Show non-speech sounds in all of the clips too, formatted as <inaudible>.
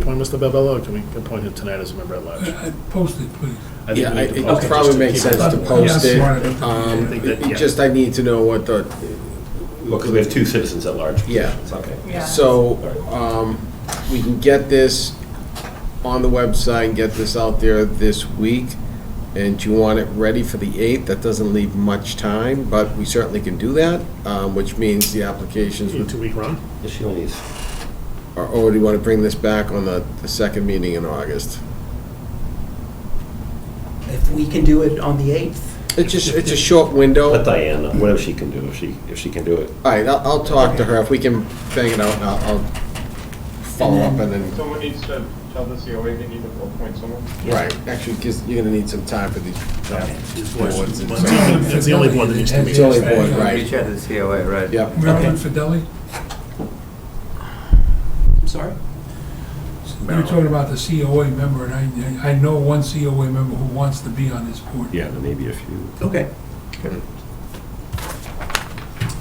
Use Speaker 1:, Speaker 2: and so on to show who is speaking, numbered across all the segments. Speaker 1: appoint Mr. Babello, or can we appoint him tonight as a member at large?
Speaker 2: Uh, Post it, please.
Speaker 1: I think
Speaker 3: Yeah,
Speaker 1: we
Speaker 3: I-
Speaker 1: need to
Speaker 3: it
Speaker 1: post it
Speaker 3: probably
Speaker 1: just to
Speaker 3: makes
Speaker 1: keep it
Speaker 3: sense to
Speaker 1: up.
Speaker 3: post
Speaker 2: Yeah,
Speaker 3: it.
Speaker 2: smart idea.
Speaker 3: Um,
Speaker 1: Think that-
Speaker 3: it-
Speaker 1: yeah.
Speaker 3: Just I need to know what the,
Speaker 4: Because we have two citizens at large.
Speaker 3: Yeah.
Speaker 4: It's okay.
Speaker 5: Yeah.
Speaker 3: so, um, we can get this on the website and get this out there this week. And do you want it ready for the 8th? That doesn't leave much time, but we certainly can do that, um, which means the applications
Speaker 1: Yeah,
Speaker 3: would-
Speaker 1: Two-week run?
Speaker 4: Yes, She only is.
Speaker 3: are, or do you want to bring this back on the, the second meeting in August?
Speaker 6: If we can do it on the 8th,
Speaker 3: It's just, it's a short window.
Speaker 4: Let Diane, know, whatever she can do, if she, if she can do it.
Speaker 3: All right, I'll, I'll talk to her, if we can bang it out, I'll, I'll follow up and then,
Speaker 7: Someone needs to tell the COA they need to appoint someone.
Speaker 1: Mm-hmm.
Speaker 3: right, actually, because you're gonna need some time for these. boards and so-
Speaker 1: It's the only one that needs to be.
Speaker 3: It's only board, right,
Speaker 8: Reach out to the COA, right?
Speaker 3: yep.
Speaker 2: Marilyn Fidelli,
Speaker 6: I'm sorry?
Speaker 2: you were talking about the COA member, and I, I know one COA member who wants to be on this board.
Speaker 4: Yeah, there may be a few.
Speaker 6: Okay.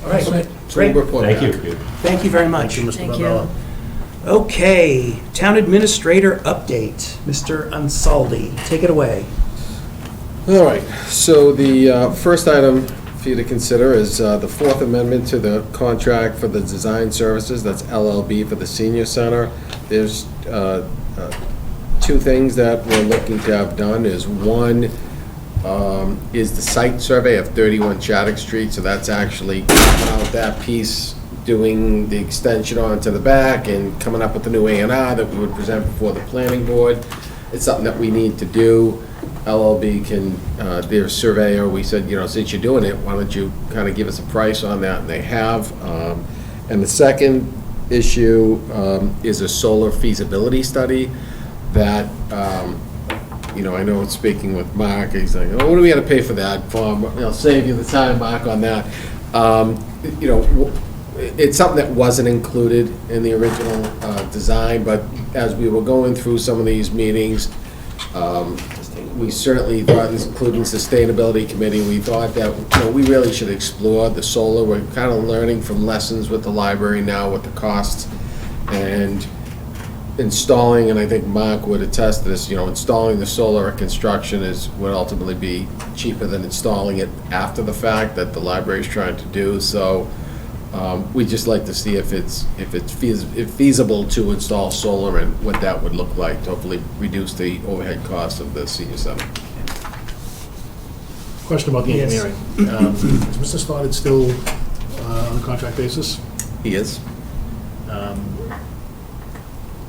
Speaker 6: All
Speaker 2: That's it.
Speaker 6: right,
Speaker 3: So we'll
Speaker 6: great.
Speaker 3: report
Speaker 4: Thank
Speaker 3: back.
Speaker 4: you.
Speaker 6: Thank you very much.
Speaker 1: Thank you, Mr.
Speaker 5: Thank you.
Speaker 1: Babello.
Speaker 6: Okay, Town Administrator Update, Mr. Unsaldi, take it away.
Speaker 3: All right, so the uh, first item for you to consider is uh, the Fourth Amendment to the contract for the design services, that's LLB for the senior center. There's uh, uh, two things that we're looking to have done, is one, um, is the site survey of 31 Chaddock Street, so that's actually coming out that piece, doing the extension onto the back and coming up with the new A and R that we would present before the planning board. It's something that we need to do. LLB can, uh, their surveyor, we said, you know, since you're doing it, why don't you kind of give us a price on that, and they have. Um, And the second issue um, is a solar feasibility study that um, you know, I know in speaking with Mark, he's like, oh, what do we gotta pay for that, Bob? I'll save you the time, Mark, on that. Um, you know, w- it's something that wasn't included in the original, uh, design, but as we were going through some of these meetings, um, we certainly thought, including Sustainability Committee, we thought that, you know, we really should explore the solar. We're kind of learning from lessons with the library now with the costs. And installing, and I think Mark would attest to this, you know, installing the solar at construction is, would ultimately be cheaper than installing it after the fact that the library is trying to do. So um, we just like to see if it's, if it's feas- if feasible to install solar and what that would look like to hopefully reduce the overhead cost of the senior center.
Speaker 1: Question about the
Speaker 6: Yes.
Speaker 1: engineering. Um, Is Mr. Stoddard still uh, on a contract basis?
Speaker 3: He is?
Speaker 1: Um,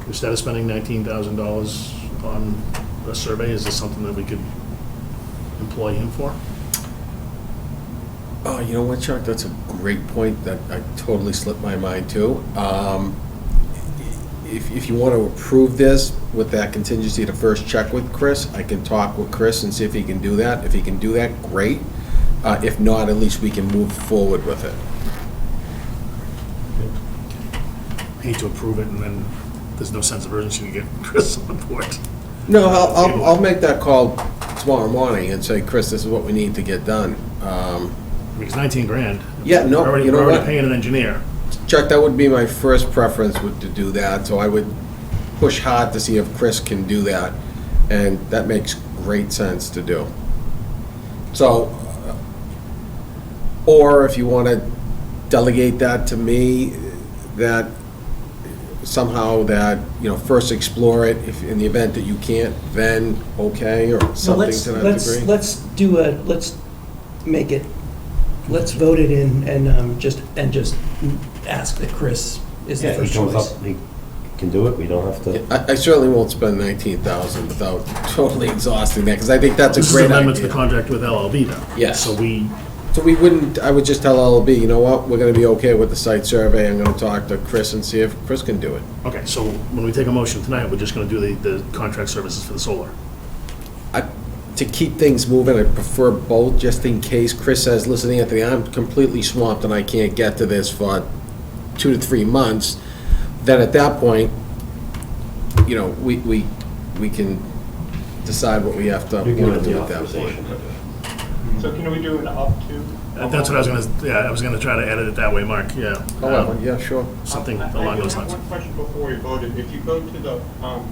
Speaker 1: Instead of spending $19,000 on a survey, is this something that we could employ him for?
Speaker 3: Oh, you know what, Chuck, that's a great point that I totally slipped my mind to. Um, If, if you want to approve this with that contingency to first check with Chris, I can talk with Chris and see if he can do that. If he can do that, great. Uh, If not, at least we can move forward with it.
Speaker 1: Hate to approve it, and then there's no sense of urgency to get <laughs> Chris on board.
Speaker 3: No, I'll, I'll, I'll make that call tomorrow morning and say, Chris, this is what we need to get done. Um,
Speaker 1: Because 19 grand.
Speaker 3: Yeah, no,
Speaker 1: We're already-
Speaker 3: you know
Speaker 1: We're
Speaker 3: what?
Speaker 1: already paying an engineer.
Speaker 3: Chuck, that would be my first preference would to do that, so I would push hard to see if Chris can do that, and that makes great sense to do. So, uh, or if you want to delegate that to me, that somehow that, you know, first explore it, if, in the event that you can't, then okay, or
Speaker 6: So
Speaker 3: something
Speaker 6: let's,
Speaker 3: to that
Speaker 6: let's,
Speaker 3: degree.
Speaker 6: let's do a, let's make it, let's vote it in and um, just, and just ask that Chris is the
Speaker 4: Yeah, he
Speaker 6: first
Speaker 4: comes
Speaker 6: choice.
Speaker 4: up, he can do it, we don't have to.
Speaker 3: I I certainly won't spend nineteen thousand without totally <laughs> exhausting that, because I think that's a
Speaker 1: This is an
Speaker 3: great idea.
Speaker 1: amendment to the contract with LLB, though.
Speaker 3: Yes.
Speaker 1: So we,
Speaker 3: So we wouldn't, I would just tell LLB, you know what, we're gonna be okay with the site survey, I'm gonna talk to Chris and see if Chris can do it.
Speaker 1: okay, so when we take a motion tonight, we're just going to do the, the contract services for the solar.
Speaker 3: I, to keep things moving, I prefer both, just in case Chris says, listen, Anthony, I'm completely swamped and I can't get to this for two to three months, then at that point, you know, we, we, we can decide what we have to,
Speaker 4: You can
Speaker 3: wanna
Speaker 4: have
Speaker 3: do
Speaker 4: the
Speaker 3: at that point.
Speaker 4: authorization.
Speaker 7: So can we do an up to?
Speaker 1: That- That's what I was going to, yeah, I was going to try to edit it that way, Mark, yeah.
Speaker 3: However,
Speaker 1: Um,
Speaker 3: yeah, sure.
Speaker 1: Something
Speaker 7: I- I
Speaker 1: along
Speaker 7: do
Speaker 1: those
Speaker 7: have
Speaker 1: lines.
Speaker 7: One question before we voted. If you go to the um,